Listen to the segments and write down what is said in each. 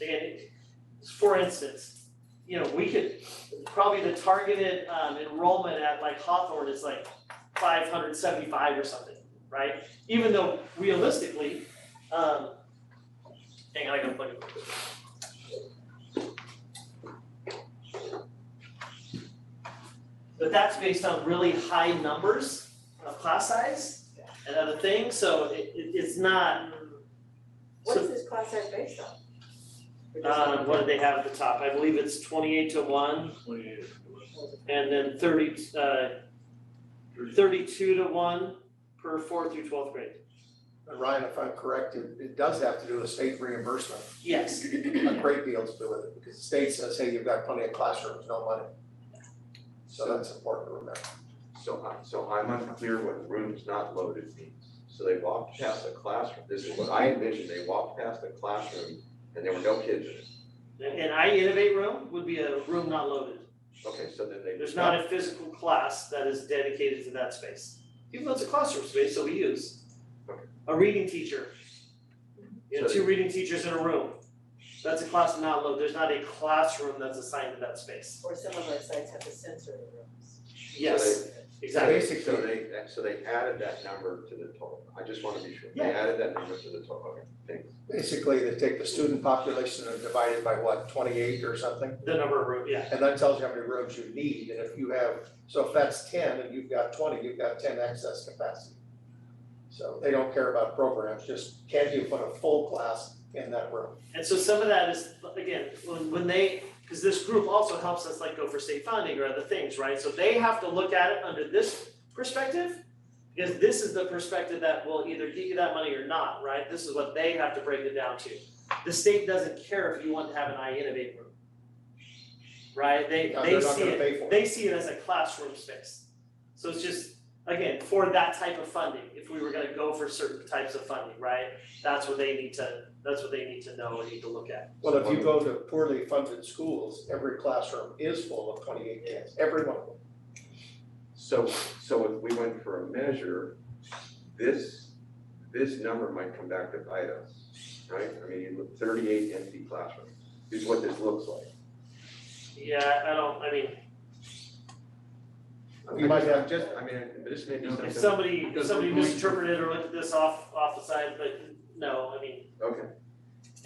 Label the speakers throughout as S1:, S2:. S1: again, for instance, you know, we could, probably the targeted um enrollment at like Hawthorne is like five hundred seventy-five or something, right? Even though realistically, um, hang on, I gotta plug it. But that's based on really high numbers of class size and other things, so it it it's not.
S2: What
S1: so-
S2: is this class size based on? Or does it-
S1: uh, what did they have at the top? I believe it's twenty-eight to one, and then thirty, uh, thirty-two to one per fourth through twelfth grade.
S3: And Ryan, if I'm correct, it, it does have to do with state reimbursement,
S1: Yes,
S3: a great deal to do with it, because the state says, hey, you've got plenty of classrooms, no money. So that's important to remember.
S4: So I, so I'm unclear what rooms not loaded means. So they walked past the classroom, this is what I envisioned, they walked past the classroom and there were no kids in it.
S1: and I innovate room would be a room not loaded.
S4: Okay, so then they.
S1: There's not a physical class that is dedicated to that space. Even though it's a classroom space that we use. A reading teacher. You know, two reading teachers in a room. That's a class not loaded. There's not a classroom that's assigned to that space.
S2: Or some of our sites have a sensory rooms.
S1: Uh, Yes, exactly.
S4: So
S3: Basically,
S4: they, so they added that number to the total. I just wanna be sure. They
S1: Yeah.
S4: added that number to the total, okay, thanks.
S3: basically, they take the student population and divide it by what, twenty-eight or something?
S1: The number of room, yeah.
S3: And that tells you how many rooms you need, and if you have, so if that's ten and you've got twenty, you've got ten excess capacity. So they don't care about programs, just can you put a full class in that room?
S1: And so some of that is, again, when, when they, because this group also helps us like go for state funding or other things, right? So they have to look at it under this perspective, because this is the perspective that will either give you that money or not, right? This is what they have to break it down to. The state doesn't care if you want to have an I innovate room. Right? They,
S3: Now,
S1: they
S3: they're not
S1: see
S3: gonna
S1: it,
S3: pay for it.
S1: they see it as a classroom space. So it's just, again, for that type of funding, if we were gonna go for certain types of funding, right? That's what they need to, that's what they need to know and need to look at.
S3: Well, if you go to poorly funded schools, every classroom is full of twenty-eight kids, every one of them.
S4: So, so if we went for a measure, this, this number might come back to bite us, right? I mean, thirty-eight empty classrooms is what this looks like.
S1: Yeah, I don't, I mean,
S3: You might have-
S4: Just, I mean, this may be something.
S1: if somebody, if
S4: Because
S1: somebody
S4: we're going-
S1: misinterpreted or looked at this off, off the side, but no, I mean,
S4: Okay,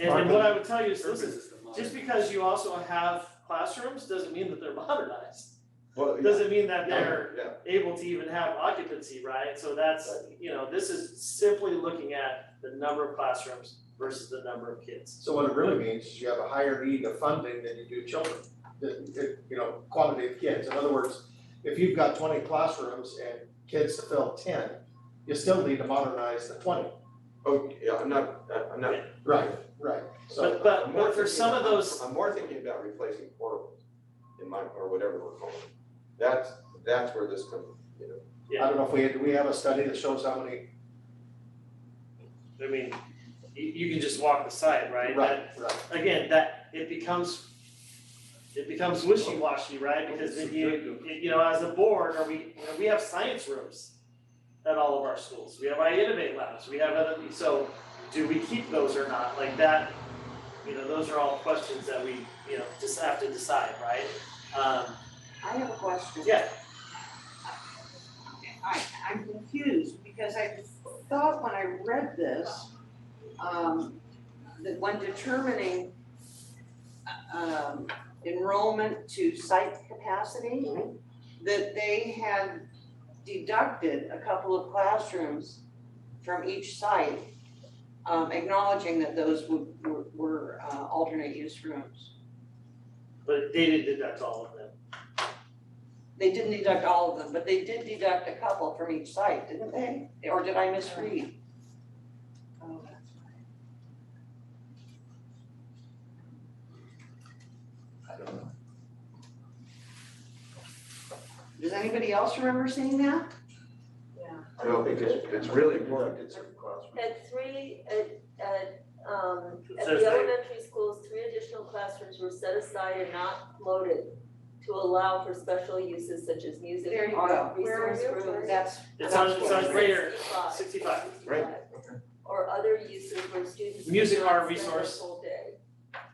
S1: and and what I would tell you is, listen, just because you also have classrooms, doesn't mean that they're modernized.
S4: well, Oh, yeah.
S1: Doesn't mean that they're
S4: Yeah,
S1: able to even have occupancy, right? So that's, you know, this is simply looking at the number of classrooms versus the number of kids.
S3: So what it really means is you have a higher need of funding than you do children, that- that, you know, quantity of kids. In other words, if you've got twenty classrooms and kids to fill ten, you still need to modernize the twenty.
S4: oh, yeah, I'm not, I'm not.
S3: Right. Right, so
S1: But but
S4: I'm more
S1: but for
S4: thinking-
S1: some of those,
S4: I'm more thinking about replacing portables in my, or whatever we're calling it. That's, that's where this comes, you know.
S3: I don't know if we, do we have a study that shows how many,
S1: I mean, you you can just walk the side, right?
S3: right,
S1: That-
S3: right.
S1: Again, that it becomes it becomes wishy-washy, right? Because then you, you know, as a board, or we, you know, we have science rooms at all of our schools. We have I innovate labs, we have other, so do we keep those or not? Like that, you know, those are all questions that we, you know, just have to decide, right? Um,
S5: I have a question.
S1: yeah,
S5: I, I'm confused because I thought when I read this, um, that when determining, um, enrollment to site capacity, that they had deducted a couple of classrooms from each site, um, acknowledging that those would, were, were uh, alternate use rooms.
S1: but they didn't deduct all of them.
S5: They didn't deduct all of them, but they did deduct a couple from each site, didn't they? Or did I misread? Oh, that's right.
S3: I don't know.
S5: Does anybody else remember seeing that?
S2: Yeah.
S4: I don't think it's, it's really important, it's.
S6: At three, at, at, um, at
S1: Says they-
S6: the elementary schools, three additional classrooms were set aside and not loaded to allow for special uses such as music,
S5: There you
S6: art,
S5: go. Where
S6: resource
S5: are you?
S6: rooms.
S5: That's.
S1: It's on, it's on
S5: That's
S1: right here,
S6: 65,
S1: sixty-five.
S4: Right.
S6: Or other uses where students.
S1: Music,
S6: cannot
S1: art,
S6: spend their
S1: resource.
S6: full